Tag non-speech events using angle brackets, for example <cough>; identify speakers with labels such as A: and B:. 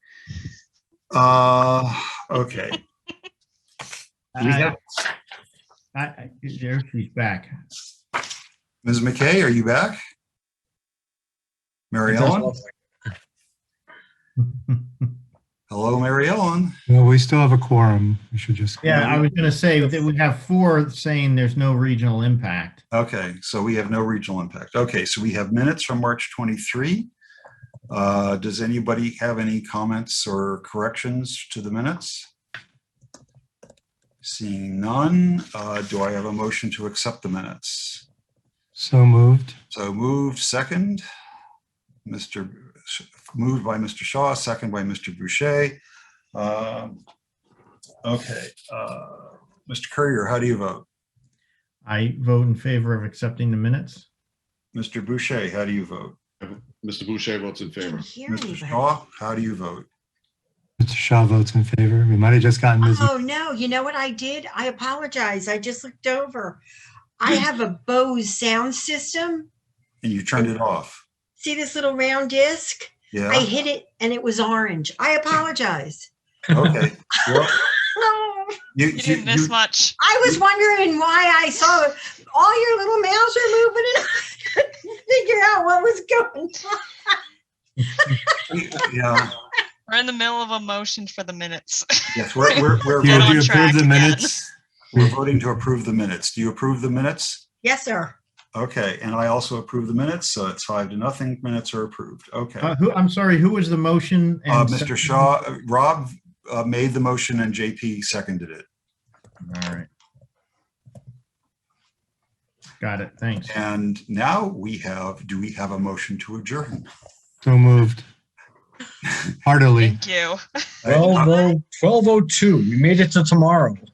A: Uh, okay.
B: I, I, I, there she's back.
A: <laughs> Ms. McKay, are you back? Mary Ellen? Hello, Mary Ellen.
C: No, we still have a quorum. We should just.
B: Yeah, I was gonna say that we have four saying there's no regional impact.
A: Okay, so we have no regional impact. Okay, so we have minutes from March 23. Uh, Does anybody have any comments or corrections to the minutes? Seeing none, uh, do I have a motion to accept the minutes?
C: So moved.
A: So moved, second. Mr., Sh- moved by Mr. Shaw, second by Mr. Boucher. Um, Okay, uh, Mr. Courier, how do you vote?
B: I vote in favor of accepting the minutes.
A: Mr. Boucher, how do you vote?
D: Mr. Boucher votes in favor.
E: Can't hear
A: Mr.
E: anybody.
A: Shaw, how do you vote?
C: Mr. Shaw votes in favor. We might have just gotten Ms.
E: Oh, no, you know what I did? I apologize. I just looked over. I have a Bose sound system.
A: And you turned it off.
E: See this little round disc? I
A: Yeah,
E: hit it and it was orange. I apologize.
A: okay. Well,
E: Oh,
A: You,
F: You
A: you,
F: didn't miss
A: you,
F: much.
E: I was wondering why I saw all your little mouths are moving and <laughs> I couldn't figure out what was going on.
A: yeah,
F: We're in the middle of a motion for the minutes.
A: yes, we're, we're, we're
C: <laughs> You-
F: Get on
A: voting-
C: you approve
F: track
C: the
F: again.
C: minutes?
A: we're voting to approve the minutes. Do you approve the minutes?
E: Yes, sir.
A: Okay, and I also approve the minutes, so it's five to nothing. Minutes are approved. Okay.
B: Uh, who, I'm sorry, who was the motion? and
A: Uh,
B: second?
A: Mr. Shaw, uh, Rob uh, made the motion and JP seconded it.
B: All right. Got it, thanks.
A: And now we have, do we have a motion to adjourn?
C: So
F: <laughs>
C: moved. Heartily.
F: Thank you.
A: I-
G: oh, 1202, we made it to tomorrow.